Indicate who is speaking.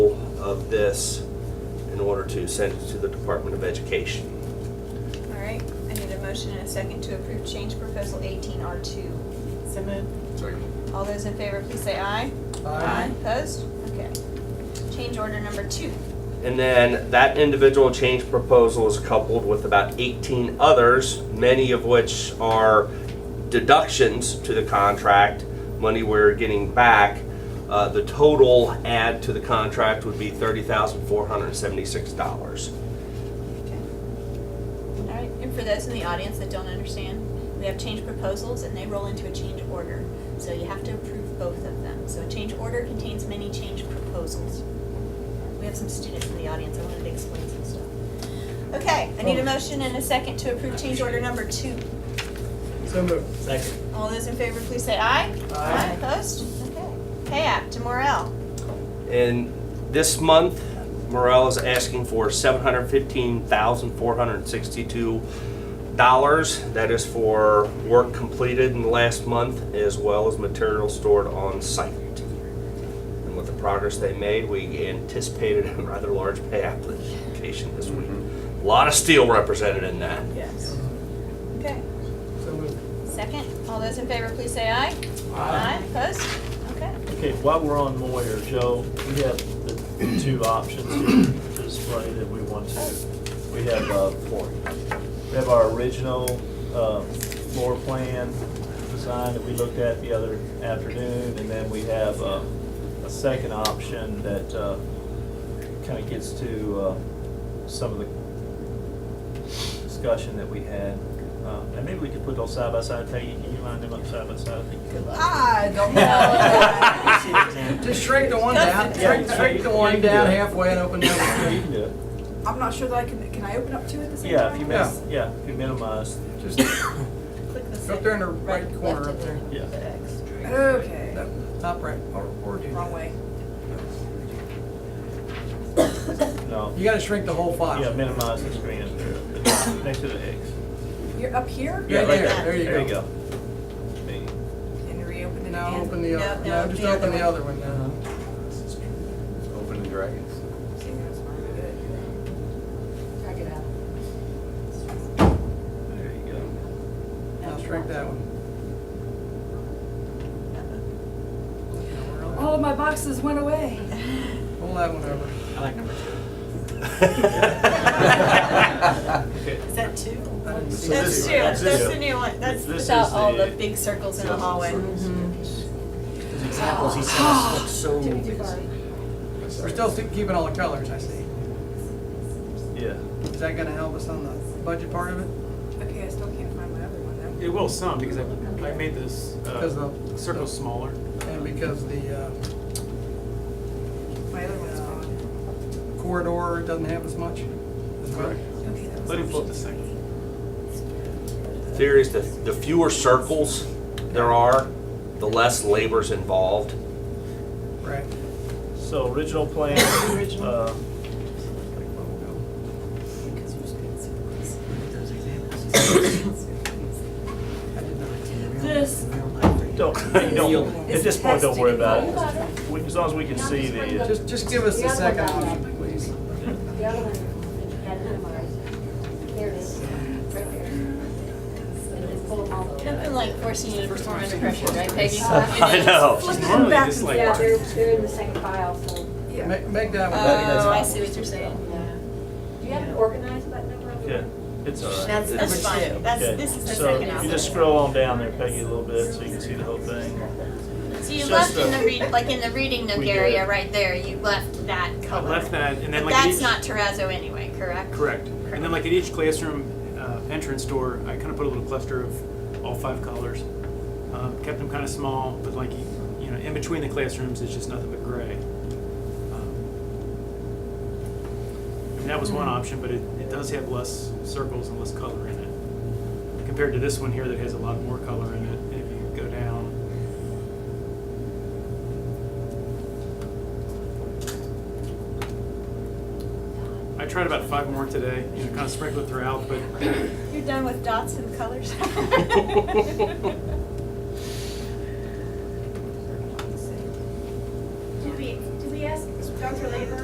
Speaker 1: this in order to send it to the Department of Education.
Speaker 2: All right, I need a motion and a second to approve change proposal eighteen R two.
Speaker 3: So moved.
Speaker 4: Second.
Speaker 2: All those in favor, please say aye. Opposed? Okay. Change order number two.
Speaker 1: And then that individual change proposal is coupled with about 18 others, many of which are deductions to the contract, money we're getting back. Uh, The total add to the contract would be $30,476.
Speaker 2: Okay. All right, and for those in the audience that don't understand, we have change proposals and they roll into a change order. So you have to approve both of them. So a change order contains many change proposals. We have some students in the audience, I wanted to explain some stuff. Okay, I need a motion and a second to approve change order number two.
Speaker 3: So moved. Second.
Speaker 2: All those in favor, please say aye.
Speaker 3: Aye.
Speaker 2: Opposed? Okay. Pay Act to Morel.
Speaker 1: And this month, Morel is asking for seven hundred fifteen thousand four hundred sixty-two dollars. That is for work completed in the last month, as well as material stored on site. And with the progress they made, we anticipated a rather large pay application this week. A Lot of steel represented in that.
Speaker 3: Yes.
Speaker 2: Okay.
Speaker 3: So moved.
Speaker 2: Second, all those in favor, please say aye. Aye. Opposed? Okay.
Speaker 5: Okay, while we're on Moyer, Joe, we have the two options here to display that we want to. We have, uh, we have our original, uh, floor plan design that we looked at the other afternoon, and then we have, uh, a second option that, uh, kinda gets to, uh, some of the discussion that we had. Uh, and maybe we could put those side by side, Peggy, can you line them up side by side? I think you could.
Speaker 3: I don't Just shrink the one down, shrink, shrink the one down halfway and open the
Speaker 5: Yeah, you
Speaker 3: other.
Speaker 5: can do it.
Speaker 6: I'm not sure that I can, can I open up two at the same
Speaker 5: Yeah,
Speaker 6: time?
Speaker 5: if you miss, yeah, if you minimize,
Speaker 3: Just
Speaker 2: Click the
Speaker 3: Up
Speaker 2: second.
Speaker 3: there in the right corner up there.
Speaker 5: yeah.
Speaker 6: Okay,
Speaker 3: Top right.
Speaker 6: wrong way.
Speaker 5: No,
Speaker 3: You gotta shrink the whole file.
Speaker 5: yeah, minimize the screen up there, at the top, next to the X.
Speaker 6: You're up here?
Speaker 3: Yeah,
Speaker 5: right
Speaker 3: there, there you
Speaker 5: There you
Speaker 3: go.
Speaker 5: go. Bing.
Speaker 6: And reopen it again?
Speaker 3: Now open the other,
Speaker 2: No,
Speaker 3: no,
Speaker 2: no,
Speaker 3: just
Speaker 2: the other
Speaker 3: open the
Speaker 2: one.
Speaker 3: other one now.
Speaker 4: Open the dragons.
Speaker 6: See, that's fine. Drag it out.
Speaker 5: There you go.
Speaker 2: Uh-huh.
Speaker 3: Now shrink that one.
Speaker 6: All of Oh, my boxes went away.
Speaker 3: Pull that one over.
Speaker 2: Is that two?
Speaker 3: I didn't see it.
Speaker 2: That's two, that's the new one, that's
Speaker 5: This
Speaker 2: without
Speaker 5: is
Speaker 2: all the
Speaker 5: the-
Speaker 2: big circles in the hallway.
Speaker 3: Mm-hmm.
Speaker 7: examples, he says, look so.
Speaker 3: We're still keeping all the colors, I see.
Speaker 5: Yeah.
Speaker 3: Is that gonna help us on the budget part of it?
Speaker 6: Okay, I still can't find my other one
Speaker 8: It will some, because I, I made this,
Speaker 3: Because
Speaker 8: uh,
Speaker 3: the-
Speaker 8: circle smaller.
Speaker 3: And because the uh,
Speaker 6: though. My other one's gone.
Speaker 3: corridor doesn't have as much as well.
Speaker 6: Okay, that was-
Speaker 8: Let him flip the second.
Speaker 1: Theory is that the fewer circles there are, the less labor's involved.
Speaker 3: Right.
Speaker 5: So original plan, uh,
Speaker 7: This.
Speaker 5: don't, you don't, at this point, don't worry about it. We- As long as we can see the, uh,
Speaker 3: Just, just give us the second option, please.
Speaker 9: The other one, had it memorized. There it is, right there. And then pull them all the way
Speaker 2: I've been
Speaker 9: up.
Speaker 2: like forcing you to perform under pressure, right Peggy?
Speaker 1: I know.
Speaker 8: Normally, this like,
Speaker 9: Yeah, they're, they're in the second file, so.
Speaker 6: Yeah.
Speaker 3: Make, make that
Speaker 2: Oh,
Speaker 3: one.
Speaker 2: I see what you're saying.
Speaker 9: Do you have it organized by number?
Speaker 5: okay, it's all right.
Speaker 2: That's, that's fine, that's,
Speaker 5: Okay,
Speaker 2: this is the
Speaker 5: so
Speaker 2: second
Speaker 5: you just
Speaker 2: option.
Speaker 5: scroll on down there, Peggy, a little bit, so you can see the whole thing.
Speaker 2: So you
Speaker 5: just
Speaker 2: left in
Speaker 5: the-
Speaker 2: the read, like in the reading nook
Speaker 5: We did
Speaker 2: area
Speaker 5: it.
Speaker 2: right there, you left that
Speaker 8: I
Speaker 2: color.
Speaker 8: left that, and then
Speaker 2: But
Speaker 8: like.
Speaker 2: that's
Speaker 8: each-
Speaker 2: not terrazzo anyway, correct?
Speaker 8: Correct. And then like at each classroom, uh, entrance door, I kind of put a little cluster of all five colors. Um, kept them kind of small, but like, you you know, in between the classrooms, it's just nothing but gray. Um, I mean, that was one option, but it, it does have less circles and less color in it. Compared to this one here that has a lot more color in it, if you go down. I tried about five more today, you know, kind of sprinkled throughout, but
Speaker 2: You're done with dots and colors?